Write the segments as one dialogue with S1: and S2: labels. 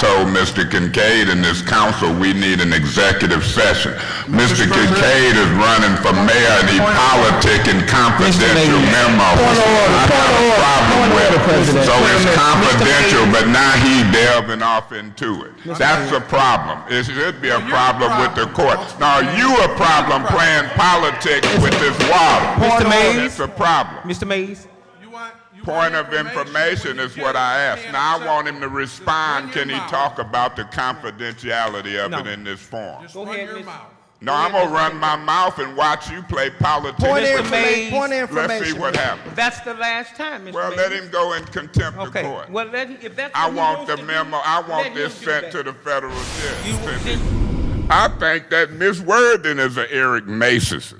S1: told Mr. Kincaid and this council, we need an executive session. Mr. Kincaid is running for mayor and he politicking confidential
S2: Mayor.
S1: memos.
S2: Point of order,
S1: I
S2: point
S1: have
S2: of
S1: a
S2: order,
S1: problem
S2: point of
S1: with
S2: order,
S1: it.
S2: President.
S1: So it's
S2: Mr. Mayor.
S1: confidential, but now he delving off into it. That's a problem. It should be a problem with the court. Now, you a problem playing politics with this water.
S2: Mr. Mayor.
S1: It's a problem.
S2: Mr. Mays,
S3: You want- you want
S1: Point of information is what I asked. Now, I want him to respond. Can he talk about the confidentiality of it
S2: No.
S1: in this form?
S3: Run
S2: Go ahead,
S3: your
S2: Miss-
S3: mouth.
S1: No, I'm gonna run my mouth and watch you play politics.
S4: Point of
S2: Mr.
S4: information,
S2: Mays.
S4: point of
S1: Let's see
S4: information.
S1: what happens.
S2: that's the last time, Mr.
S1: Well,
S2: Mays.
S1: let him go in contempt of
S2: Okay,
S1: court.
S2: well, let, him- if that's
S1: I
S2: what he
S1: want
S2: wants
S1: the
S2: to do,
S1: memo, I
S2: let
S1: want
S2: him
S1: this
S2: do
S1: sent
S2: that.
S1: to the federal judge.
S2: You-
S1: I think that Miss Worthing is an Eric Macy's.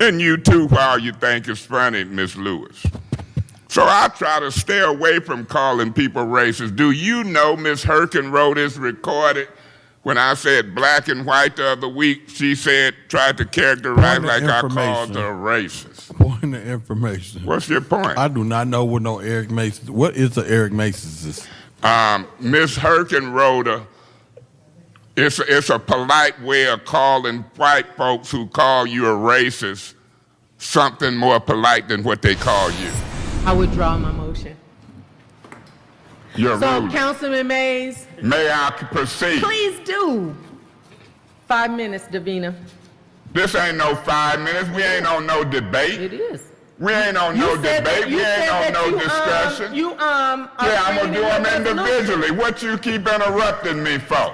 S1: And you too, while you think it's funny, Miss Lewis. So I try to stay away from calling people racist. Do you know Miss Herkin wrote this recorded? When I said black and white the other week, she said, tried to characterize
S5: Point
S1: like
S5: of
S1: I called
S5: information.
S1: her racist.
S5: Point of information.
S1: What's your point?
S5: I do not know what no Eric Mason. What is the Eric Mason's?
S1: um, Miss Herkin wrote a, it's, a, it's a polite way of calling white folks who call you a racist something more polite than what they call you.
S4: I withdraw my motion.
S1: You're
S4: So
S1: rude.
S4: Councilman Mays,
S1: May I proceed?
S4: please do. Five minutes, Davina.
S1: This ain't no five minutes. We ain't on no
S4: It
S1: debate.
S4: is.
S1: We ain't on no
S4: You said that-
S1: debate.
S4: you
S1: We ain't
S4: said
S1: on
S4: that
S1: no
S4: you, um,
S1: discussion.
S4: You, um. are
S1: yeah, I'm gonna do
S4: bringing
S1: them
S4: in the resolution.
S1: individually. What you keep interrupting me for?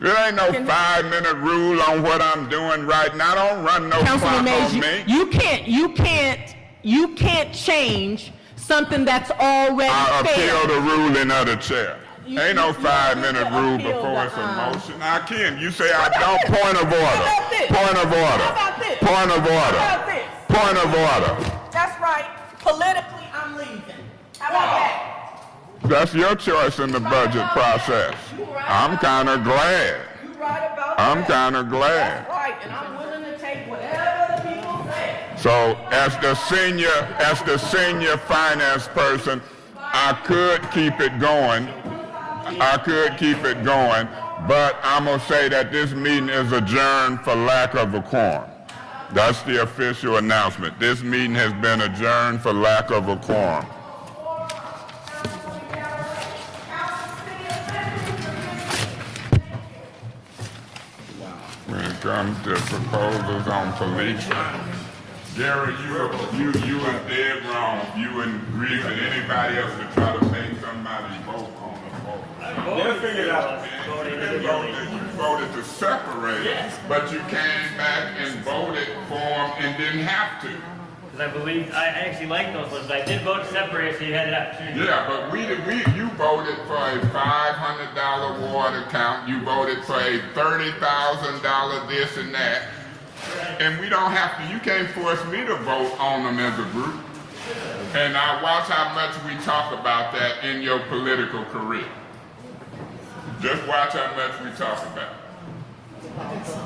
S1: There ain't no
S4: Can-
S1: five-minute rule on what I'm doing right now. Don't run no
S4: Councilman
S1: clock
S4: Mays,
S1: on
S4: you,
S1: me.
S4: you can't, you can't, you can't change something that's
S1: I
S4: already fair.
S1: appeal the ruling of the chair.
S4: You-
S1: Ain't no
S4: you- you
S1: five-minute
S4: don't need to
S1: rule
S4: appeal
S1: before
S4: the,
S1: it's a
S4: um,
S1: motion. I can. You say I don't.
S4: this?
S1: Point of order.
S4: How about this?
S1: Point of order.
S4: How about this?
S1: Point of order.
S4: How about this?
S1: Point of order.
S4: That's right. Politically, I'm leaving. How about that?
S1: That's your choice in the budget
S4: about that.
S1: process.
S4: You right
S1: I'm
S4: about
S1: kinda glad.
S4: You right about
S1: I'm kinda glad.
S4: right, and I'm willing to take whatever the people say.
S1: So as the senior, as the senior finance person, I could keep it going. I could keep it going, but I'm gonna say that this meeting is adjourned for lack of a quorum. That's the official announcement. This meeting has been adjourned for lack of a quorum. When it comes to proposals on police, Gary, you were, you, you were dead wrong. You wouldn't agree with anybody else to try to make somebody vote on a vote. They'll figure it out. You voted to separate, but you came back and voted for them and didn't have to.
S6: Because I believe, I I actually like those ones, but I did vote separate, so you had an opportunity.
S1: Yeah, but we, we, you voted for a five hundred dollar water account, you voted for a thirty thousand dollar this and that. And we don't have to, you can't force me to vote on them as a group. And I watch how much we talk about that in your political career. Just watch how much we talk about. it.